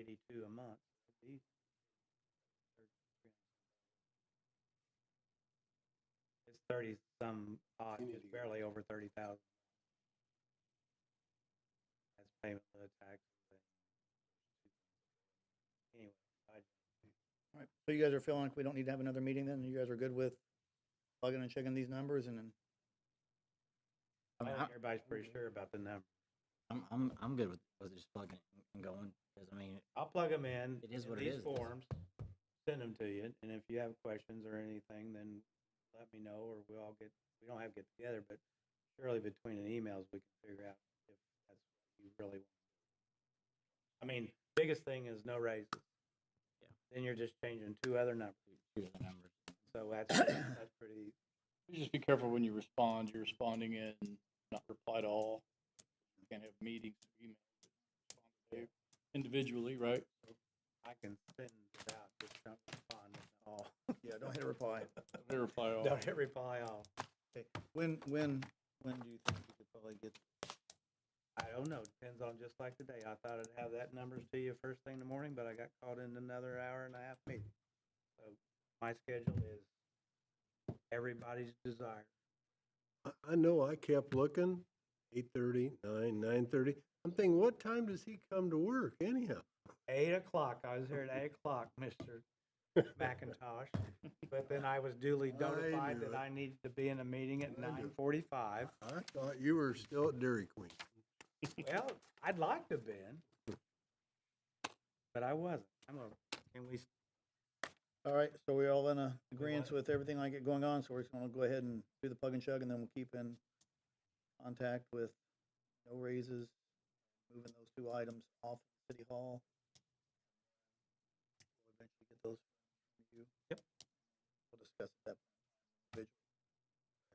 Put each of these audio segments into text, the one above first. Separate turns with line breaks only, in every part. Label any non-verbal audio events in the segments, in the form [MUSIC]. seventy-two a month. These- It's thirty some odd,
You need to
just
go
barely over thirty thousand. That's payment of the tax. Anyway, I,
All right, so you guys are feeling like we don't need to have another meeting then? You guys are good with plugging and checking these numbers and then?
I
I
mean,
think
I-
everybody's pretty sure about the number.
I'm, I'm, I'm good with, with just plugging and going, because I mean,
I'll plug them in.
It is
in
what it
these
is.
Forms, send them to you, and if you have questions or anything, then let me know, or we all get, we don't have to get together, but surely between the emails, we can figure out if that's what you really want. I mean, biggest thing is no raises.
Yeah.
Then you're just changing two other numbers,
here's the numbers.
so that's, that's pretty,
Just be careful when you respond, you're responding in, not reply to all. You can't have meetings, email, respond to individually, right?
I can send it out, just don't respond at all.
Yeah, don't hit a reply.
They reply all.
Don't hit reply all.
When, when, when do you think you could probably get?
I don't know, depends on, just like today, I thought I'd have that numbers to you first thing in the morning, but I got caught in another hour and a half meeting. So my schedule is everybody's desire.
I, I know I kept looking, eight thirty, nine, nine thirty. I'm thinking, what time does he come to work anyhow?
Eight o'clock, I was here at
[LAUGHS]
eight o'clock, Mr. McIntosh, but then I was duly
I
notified
knew
that
it.
I needed to be in a meeting at
I knew it.
nine forty-five.
I thought you were still at Dairy Queen.
Well, I'd like to have been, but I wasn't. I'm gonna, can we,
All right, so we're all in a
We
agreement
want-
with everything like it going on, so we're just gonna go ahead and do the plug and chug and then we'll keep in contact with no raises, moving those two items off of City Hall. We'll Eventually get those from you.
Yep.
We'll discuss that. individually.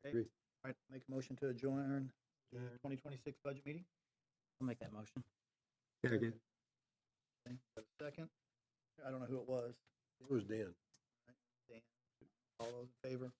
Okay.
Agree.
All right, make a motion to adjourn the
Adjourn.
twenty twenty-six budget meeting.
I'll make that motion.
Okay, got a Second, I don't know who it was.
It was Dan.
All those in favor?